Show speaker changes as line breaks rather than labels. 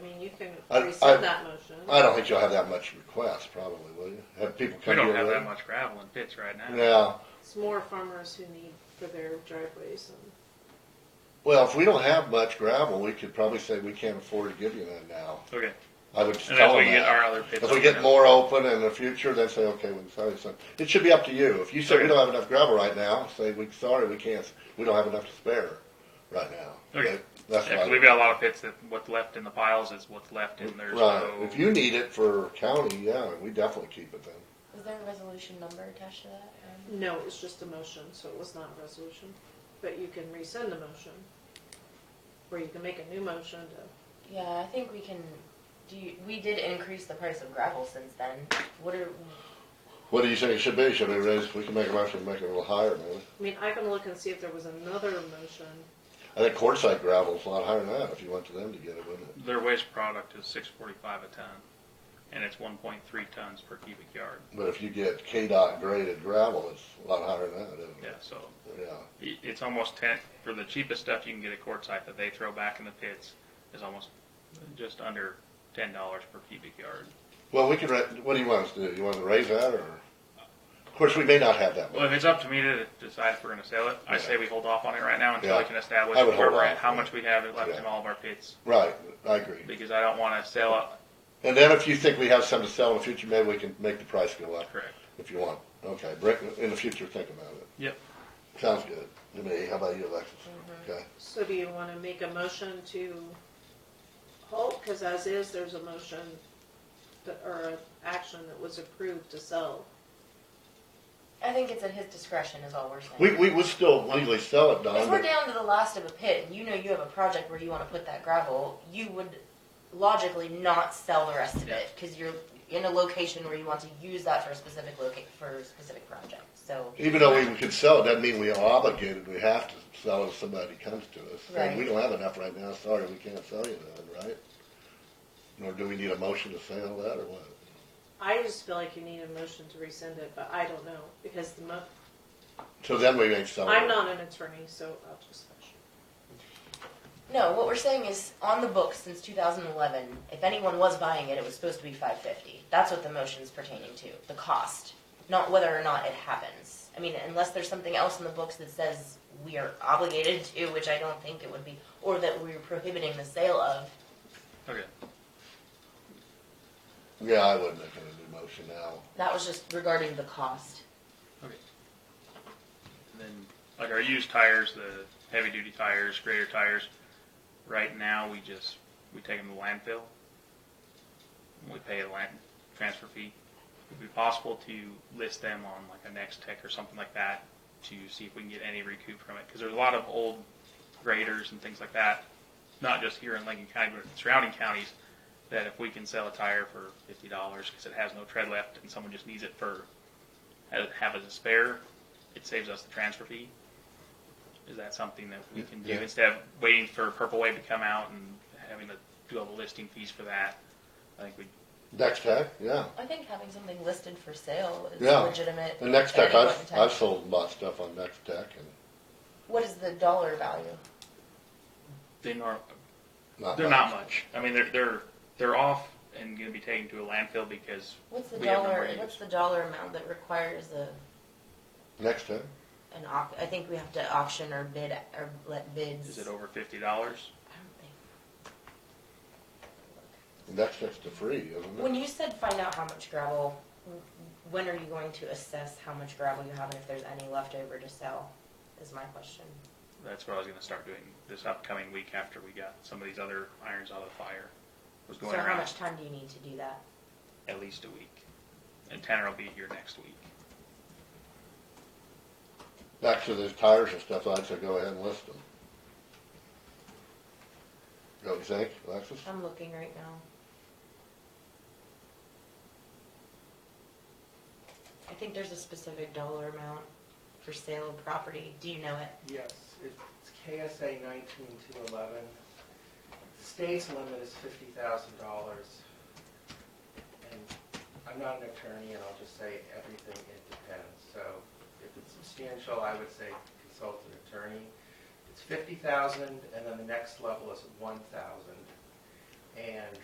I,
rescind
I,
that motion.
I don't think you'll have that much request, probably, will you? Have people
We
come
don't
your
have
way?
that much gravel in pits right now.
No.
It's more farmers who need for their driveways and.
Well, if we don't have much gravel, we could probably say we can't afford to give you that now.
Okay,
I would just
and if
tell
we
them
get our
that.
other
If
pits.
we
open
get
up-
more open in the future, they say, okay, we can sell you some. It should be up to you. If you say we
Okay.
don't have enough gravel right now, say, we, sorry, we can't, we don't have enough to spare right now.
Okay.
That- That's
Yeah, 'cause
what I-
we've got a lot of pits that what's left in the piles is what's left in there.
Right,
So
if you need it for county, yeah, we definitely keep it then.
Is there a resolution number attached to that? Um,
No, it was just a motion, so it was not a resolution. But you can rescind the motion, or you can make a new motion to,
Yeah, I think we can, do you, we did increase the price of gravel since then. What are,
What do you think it should be? Should we raise, we can make a motion, to make it a little higher, maybe.
I mean, I can look and see if there was another motion.
I think quartzite gravel's a lot higher than that if you went to them to get it, wouldn't it?
their waste product is six forty-five a ton, and it's one point three tons per cubic yard.
But if you get KDOT graded gravel, it's a lot higher than that, isn't
Yeah,
it?
so
Yeah.
i- it's almost ten for the cheapest stuff you can get at quartzite that they throw back in the pits is almost just under ten dollars per cubic yard.
Well, we could, ra- what do you want us to do? You want to raise that or? Of course, we may not have that
Well,
much.
if it's up to me to decide if we're going to sell it, I say we hold off on it right now until I
Yeah.
can establish
I would
where
hold
we're at,
off,
how
yeah.
much we have left
Yeah.
in all of our pits,
Right, I agree.
because I don't want to sell it.
And then if you think we have some to sell in the future, maybe we can make the price go up
Correct.
if you want. Okay, Bring- in the future, think about it.
Yep.
Sounds good to me. How about you, Alexis? Okay.
So do you wanna make a motion to halt, cause as is, there's a motion that, or an action that was approved to sell.
I think it's at his discretion is all we're saying.
We, we would still legally sell it, Don,
If we're
but
down to the last of a pit and you know you have a project where you wanna put that gravel, you would logically not sell the rest of
Yeah.
it, cause you're in a location where you want to use that for a specific loca- for a specific project, so.
even though we could sell it, doesn't mean we are obligated. We have to sell it if somebody comes to us. Saying, we
Right.
don't have enough right now. Sorry, we can't sell you none, right? Nor do we need a motion to sell that or what?
I just feel like you need a motion to rescind it, but I don't know, because the mo,
So then we ain't selling
I'm
it.
not an attorney, so I'll just.
No, what we're saying is on the books since 2011, if anyone was buying it, it was supposed to be 550. That's what the motion's pertaining to, the cost, not whether or not it happens. I mean, unless there's something else in the books that says we are obligated to, which I don't think it would be, or that we're prohibiting the sale of.
Okay.
Yeah, I wouldn't make a new motion now.
That was just regarding the cost.
And then, like our used tires, the heavy duty tires, greater tires, right now we just we take them to landfill. We pay a land transfer fee. Would it be possible to list them on like a Next Tech or something like that to see if we can get any recoup from it? Because there's a lot of old graders and things like that, not just here in Lincoln County, but in surrounding counties. That if we can sell a tire for fifty dollars because it has no tread left and someone just needs it for have it as a spare, it saves us the transfer fee. Is that something that we can do
Yeah.
instead of waiting for Purple Wave to come out and having to do all the listing fees for that? I think we
Next Tech, yeah.
I think having something listed for sale is
Yeah.
legitimate.
The Next
at
Tech,
any
I've,
point in time.
I've sold and bought stuff on Next Tech and
What is the dollar value?
they nor-
not.
they're not much. I mean, they're they're they're off and going to be taken to a landfill because
What's the
We have no
dollar?
range.
What's the dollar amount that requires a
Next Tech?
an au- I think we have to auction or bid or let bids.
is it over fifty dollars?
I don't think.
Next Tech's to free, isn't
When
it?
you said find out how much gravel, w- when are you going to assess how much gravel you have and if there's any left over to sell? Is my question.
That's what I was going to start doing this upcoming week after we got some of these other irons out of the fire. Was going
so how
around
much time do you need to do that?
at least a week, and Tanner will be here next week.
Back to the tires and stuff, I'd say go ahead and list them. Don't you think, Alexis?
I'm looking right now. I think there's a specific dollar amount for sale of property. Do you know it?
Yes, it's KSA nineteen two eleven. The state's limit is fifty thousand dollars. And I'm not an attorney, and I'll just say everything, it depends. So if it's substantial, I would say consult an attorney. It's fifty thousand, and then the next level is one thousand. And